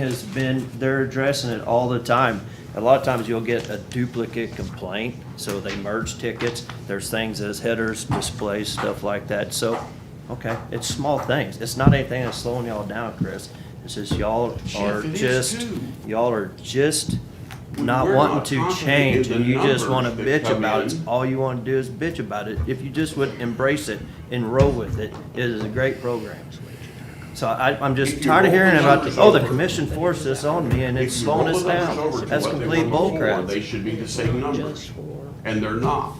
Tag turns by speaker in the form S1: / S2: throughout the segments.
S1: has been, they're addressing it all the time. A lot of times you'll get a duplicate complaint, so they merge tickets, there's things as headers, displays, stuff like that, so, okay, it's small things, it's not anything that's slowing y'all down, Chris. It's just y'all are
S2: Jeff, it is
S1: just,
S2: too.
S1: y'all are just not
S2: We're not
S1: wanting to
S2: confident
S1: change,
S2: in the
S1: and you just wanna
S2: numbers that
S1: bitch
S2: come
S1: about it,
S2: in.
S1: all you wanna do is bitch about it. If you just would embrace it, enroll with it, it is a great program. So I, I'm just
S2: If you
S1: tired of
S2: roll
S1: hearing
S2: the
S1: about,
S2: numbers
S1: the oh, the
S2: over-
S1: commission forced this on me and it's
S2: If you
S1: slowing
S2: roll
S1: us
S2: the numbers over
S1: down.
S2: to
S1: That's
S2: what they
S1: complete
S2: were
S1: bull
S2: before,
S1: crap.
S2: They should be the same numbers, and they're not.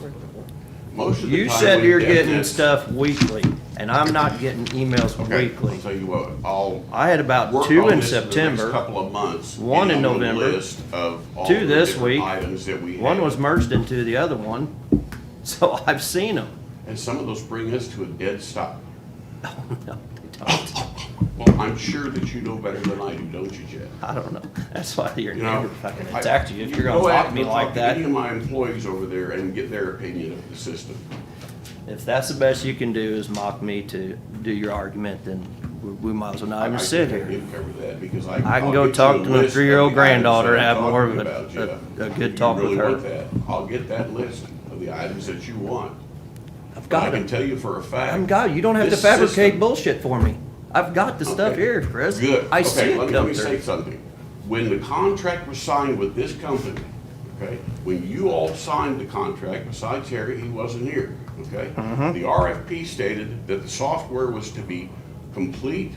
S2: Most of the
S1: You
S2: time
S1: said
S2: we
S1: you're
S2: get
S1: getting
S2: this-
S1: stuff weekly and I'm not getting emails
S2: Okay,
S1: weekly.
S2: I'll tell you what, I'll
S1: I had
S2: work
S1: about
S2: on
S1: two in
S2: this the next
S1: September,
S2: couple of months.
S1: one in
S2: and I'll do a
S1: November,
S2: list of all
S1: two
S2: the
S1: this
S2: different
S1: week,
S2: Items that we
S1: one
S2: have.
S1: was merged into the other one, so I've seen them.
S2: And some of those bring us to a dead stop.
S1: No, they don't.
S2: Well, I'm sure that you know better than I do, don't you, Jeff?
S1: I don't know. That's why your
S2: You know,
S1: neighbor fucking
S2: I-
S1: attacked you. If you're
S2: go
S1: gonna
S2: out
S1: talk to
S2: and
S1: me
S2: talk
S1: like
S2: to Any of
S1: that,
S2: my employees over there and get their opinion of the system.
S1: if that's the best you can do is mock me to do your argument, then we- we might as well not even
S2: I- I
S1: sit
S2: can't
S1: here.
S2: even cover that because I.
S1: I
S2: I'll
S1: can go
S2: get you
S1: talk
S2: a
S1: to my
S2: list of
S1: three-year-old
S2: the items
S1: granddaughter and
S2: that I'm
S1: have more of
S2: talking
S1: a-
S2: about, Jeff.
S1: a- a
S2: If
S1: good
S2: you
S1: talk with
S2: really
S1: her.
S2: want that, I'll get that list of the items that you want.
S1: I've
S2: But I
S1: got
S2: can
S1: it.
S2: tell you for a fact.
S1: I'm got, it. you don't have to
S2: this
S1: fabricate
S2: system-
S1: bullshit for me. I've got the stuff
S2: Okay.
S1: here, Chris.
S2: Good.
S1: I
S2: Okay,
S1: see
S2: let
S1: it
S2: me- Let
S1: come
S2: me say
S1: through.
S2: something. When the contract was signed with this company, okay, when you all signed the contract, besides Harry, he wasn't here, okay?
S1: Mm-hmm.
S2: The RFP stated that the software was to be complete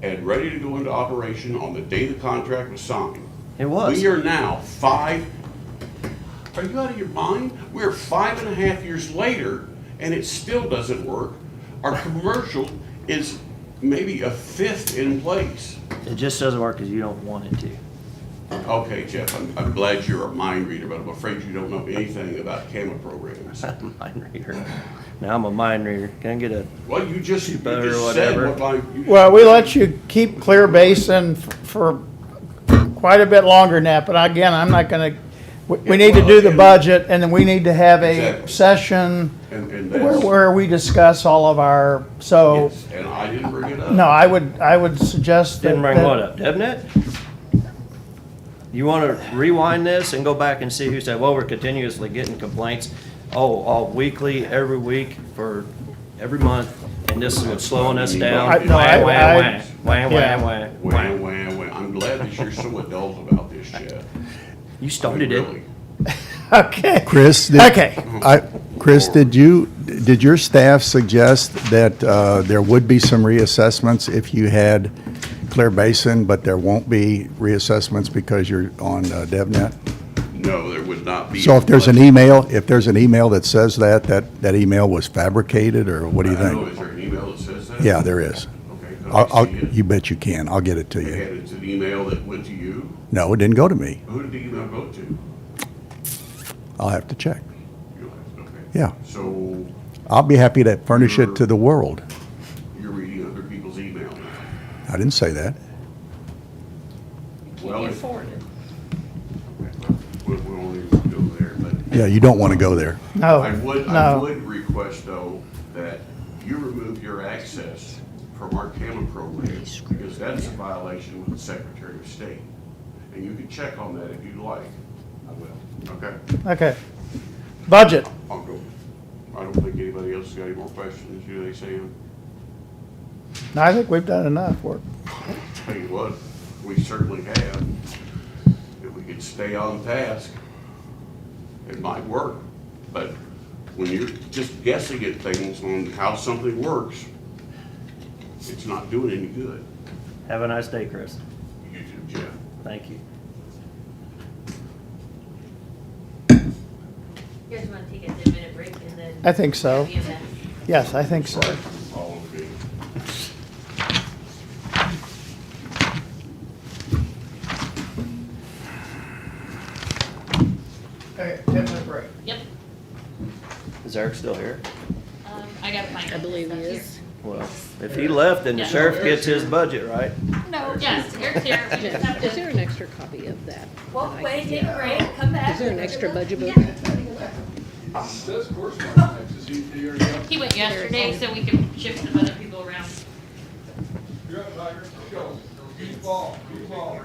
S2: and ready to go into operation on the day the contract was signed.
S1: It was.
S2: We are now five, are you out of your mind? We're five and a half years later, and it still doesn't work. Our commercial is maybe a fifth in place.
S1: It just doesn't work because you don't want it to.
S2: Okay, Jeff, I'm, I'm glad you're a mind reader, but I'm afraid you don't know anything about camera programs.
S1: I'm a mind reader. Now I'm a mind reader. Can I get a,
S2: Well, you just, you
S1: better
S2: just said
S1: whatever.
S2: what I. you-
S3: Well, we let you keep Clear Basin f- for quite a bit longer now, but again, I'm not gonna, we- we need to do the budget, and then we need to have a
S2: Exactly.
S3: session
S2: And, and
S3: where,
S2: that's,
S3: where we discuss all of our, so,
S2: yes, and I didn't bring it up.
S3: no, I would, I would suggest that.
S1: didn't bring
S3: that-
S1: what up, DevNet? You want to rewind this and go back and see who said, well, we're continuously getting complaints, oh, all weekly, every week, for every month, and this is slowing us down.
S2: I- no, I-
S1: Wah,
S2: I-
S1: wah, wah, wah,
S3: yeah.
S1: wah, wah.
S2: Wah, wah, wah. I'm glad that you're so adult about this, Jeff.
S1: Oh, You
S2: I mean,
S1: started it.
S2: really.
S3: Okay,
S4: Chris, did,
S3: okay.
S4: I, Chris, did you, did your staff suggest that uh, there would be some reassessments if you had Clear Basin, but there won't be reassessments because you're on uh, DevNet?
S2: No, there would not be.
S4: So if there's an email, if there's an email that says that, that, that email was fabricated, or what do you
S2: I don't know,
S4: think?
S2: is there an email that says that?
S4: Yeah, there is.
S2: Okay. let me
S4: I'll, I'll,
S2: see it.
S4: you bet you can. I'll get it to you.
S2: And it's an email that went to you?
S4: No, it didn't go to me.
S2: Who did the email go to? You
S4: I'll have to check.
S2: don't have- okay.
S4: Yeah.
S2: So
S4: I'll be happy to furnish it to the world.
S2: you're reading other people's email.
S4: I didn't say that.
S2: Well,
S5: Can you
S2: if-
S5: afford it?
S2: We we won't even go there, but
S4: Yeah, you don't want to go there.
S2: I would, I
S3: No,
S2: would request though, that you remove your access from our camera program because that's a violation with the Secretary of State. And you can check on that if you'd like. I will. Okay?
S3: no, okay. Budget,
S2: I'll go. I don't think anybody else has got any more questions, do they, Sam?
S3: I think we've done enough work.
S2: Tell you what, we certainly have. If we could stay on task, it might work. But when you're just guessing at things on how something works, it's not doing any good.
S1: Have a nice day, Chris.
S2: You too, Jeff.
S1: Thank you.
S6: You guys want to take a ten-minute break and then?
S3: I think so.
S6: Be a mess.
S3: Yes, I think so.
S2: Sorry, all of you.
S3: Okay, ten-minute break.
S6: Yep,
S1: Is Eric still here?
S6: um, I gotta find.
S5: I believe
S6: stuff
S5: he
S6: here.
S5: is.
S1: Well, if he left, then the
S6: Yeah.
S1: sheriff gets his budget, right?
S5: No.
S6: Yes, Eric's here. We just have
S5: Is there
S6: to
S5: an extra copy of that?
S6: Walk away, take a break, come back.
S5: Is there an extra budget book?
S7: Says course mark taxes, you, you're,
S6: He went yesterday, so we can shift some other people around.
S7: you're up, Tiger, go.
S2: Free fall, free fall.